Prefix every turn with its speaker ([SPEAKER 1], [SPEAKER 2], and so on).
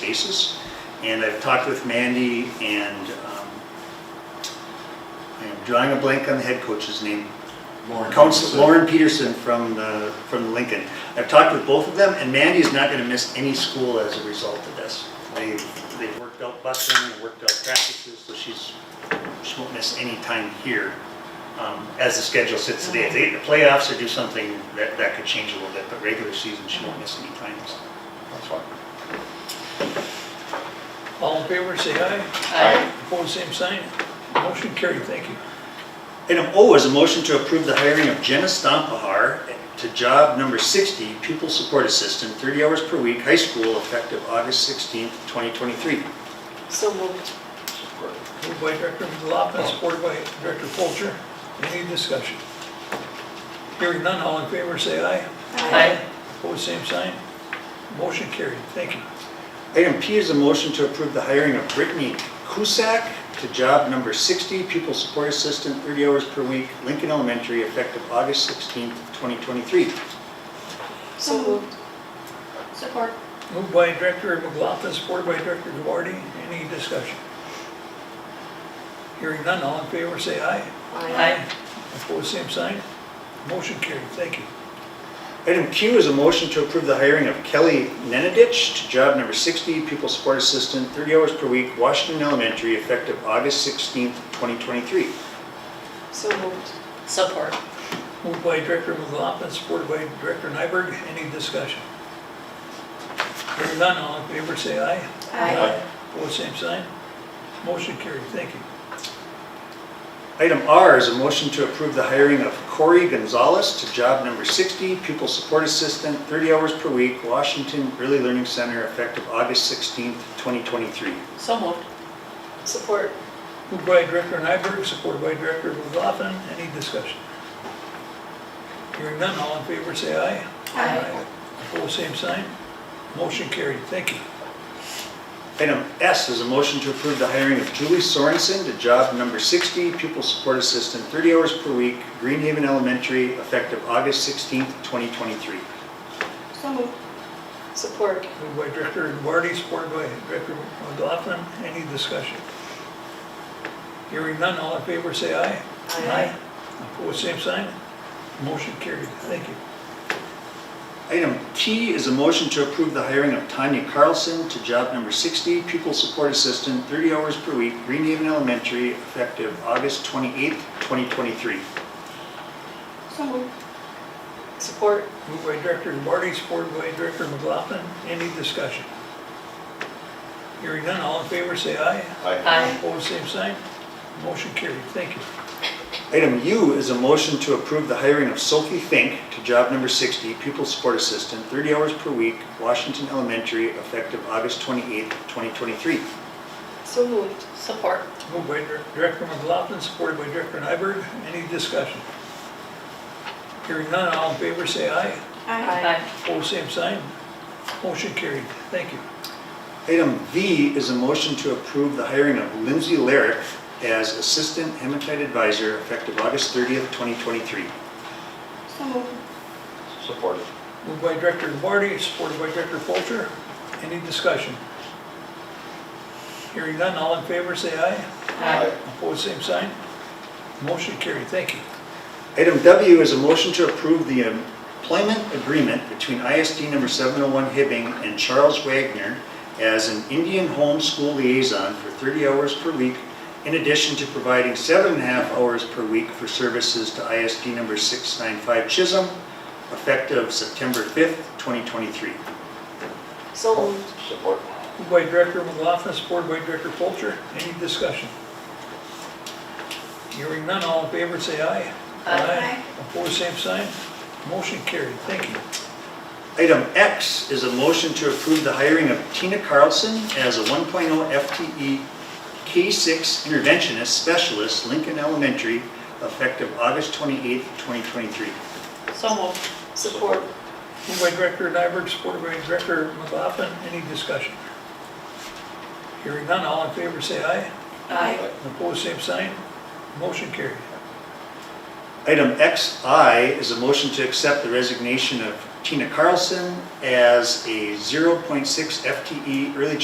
[SPEAKER 1] basis. And I've talked with Mandy and um, I am drawing a blank on the head coach's name.
[SPEAKER 2] Lauren
[SPEAKER 1] Counsel-
[SPEAKER 2] Peterson.
[SPEAKER 1] Lauren Peterson from the, from Lincoln. I've talked with both of them, and Mandy's not gonna miss any school as a result of this. They, they've worked out busing, and worked out practices, so she's, she won't miss any time here, um, as the schedule sits today. If they get in the playoffs or do something, that, that could change a little bit, but regular season, she won't miss any time, so that's why.
[SPEAKER 3] All in favor, say aye.
[SPEAKER 2] Aye.
[SPEAKER 3] Opposed, same sign. Motion carried, thank you.
[SPEAKER 1] Item O is a motion to approve the hiring of Jenna Stompahar to job number 60, pupil support assistant, 30 hours per week, high school, effective August 16th, 2023.
[SPEAKER 4] So moved.
[SPEAKER 3] Moved by Director Lopman, supported by Director Polter. Any discussion? Hearing none, all in favor, say aye.
[SPEAKER 4] Aye.
[SPEAKER 3] Opposed, same sign. Motion carried, thank you.
[SPEAKER 1] Item P is a motion to approve the hiring of Brittany Kusak to job number 60, pupil support assistant, 30 hours per week, Lincoln Elementary, effective August 16th, 2023.
[SPEAKER 4] So moved.
[SPEAKER 5] Support.
[SPEAKER 3] Moved by Director McLaughlin, supported by Director Duarte. Any discussion? Hearing none, all in favor, say aye. Opposed, same sign. Motion carried, thank you.
[SPEAKER 1] Item Q is a motion to approve the hiring of Kelly Nenadich to job number 60, pupil support assistant, 30 hours per week, Washington Elementary, effective August 16th, 2023.
[SPEAKER 4] So moved.
[SPEAKER 5] Support.
[SPEAKER 3] Moved by Director McLaughlin, supported by Director Nyberg. Any discussion? Hearing none, all in favor, say aye.
[SPEAKER 2] Aye.
[SPEAKER 3] Opposed, same sign. Motion carried, thank you.
[SPEAKER 1] Item R is a motion to approve the hiring of Corey Gonzalez to job number 60, pupil support assistant, 30 hours per week, Washington Early Learning Center, effective August 16th, 2023.
[SPEAKER 5] So moved.
[SPEAKER 4] Support.
[SPEAKER 3] Moved by Director Nyberg, supported by Director McLaughlin. Any discussion? Hearing none, all in favor, say aye.
[SPEAKER 5] Aye.
[SPEAKER 3] Opposed, same sign. Motion carried, thank you.
[SPEAKER 1] Item S is a motion to approve the hiring of Julie Sorensen to job number 60, pupil support assistant, 30 hours per week, Greenhaven Elementary, effective August 16th, 2023.
[SPEAKER 5] So moved.
[SPEAKER 4] Support.
[SPEAKER 3] Moved by Director Duarte, supported by Director McLaughlin. Any discussion? Hearing none, all in favor, say aye.
[SPEAKER 4] Aye.
[SPEAKER 3] Opposed, same sign. Motion carried. Thank you.
[SPEAKER 1] Item T is a motion to approve the hiring of Tanya Carlson to job number 60, pupil support assistant, 30 hours per week, Greenhaven Elementary, effective August 28th, 2023.
[SPEAKER 5] So moved.
[SPEAKER 4] Support.
[SPEAKER 3] Moved by Director Duarte, supported by Director McLaughlin. Any discussion? Hearing none, all in favor, say aye.
[SPEAKER 2] Aye.
[SPEAKER 5] Aye.
[SPEAKER 3] Opposed, same sign. Motion carried. Thank you.
[SPEAKER 1] Item U is a motion to approve the hiring of Sophie Fink to job number 60, pupil support assistant, 30 hours per week, Washington Elementary, effective August 28th, 2023.
[SPEAKER 4] So moved.
[SPEAKER 5] Support.
[SPEAKER 3] Moved by Dir- Director McLaughlin, supported by Director Nyberg. Any discussion? Hearing none, all in favor, say aye.
[SPEAKER 5] Aye.
[SPEAKER 3] Opposed, same sign. Motion carried. Thank you.
[SPEAKER 1] Item V is a motion to approve the hiring of Lindsay Larrick as assistant hematite advisor, effective August 30th, 2023.
[SPEAKER 5] So moved.
[SPEAKER 2] Support.
[SPEAKER 3] Moved by Director Duarte, supported by Director Polter. Any discussion? Hearing none, all in favor, say aye.
[SPEAKER 5] Aye.
[SPEAKER 3] Opposed, same sign. Motion carried. Thank you.
[SPEAKER 1] Item W is a motion to approve the employment agreement between ISD number 701 Hibbing and Charles Wagner as an Indian Home School Liaison for 30 hours per week, in addition to providing seven and a half hours per week for services to ISD number 695 Chisholm, effective September 5th, 2023.
[SPEAKER 4] So moved.
[SPEAKER 2] Support.
[SPEAKER 3] Moved by Director McLaughlin, supported by Director Polter. Any discussion? Hearing none, all in favor, say aye.
[SPEAKER 5] Aye.
[SPEAKER 3] Opposed, same sign. Motion carried. Thank you.
[SPEAKER 1] Item X is a motion to approve the hiring of Tina Carlson as a 1.0 FTE K-6 E interventionist specialist, Lincoln Elementary, effective August 28, 2023.
[SPEAKER 5] So moved.
[SPEAKER 4] Support.
[SPEAKER 3] Moved by Director Nyberg, supported by Director McLaughlin. Any discussion? Hearing none, all in favor, say aye.
[SPEAKER 5] Aye.
[SPEAKER 3] Opposed, same sign. Motion carried.
[SPEAKER 1] Item XI is a motion to accept the resignation of Tina Carlson as a 0.6 FTE E early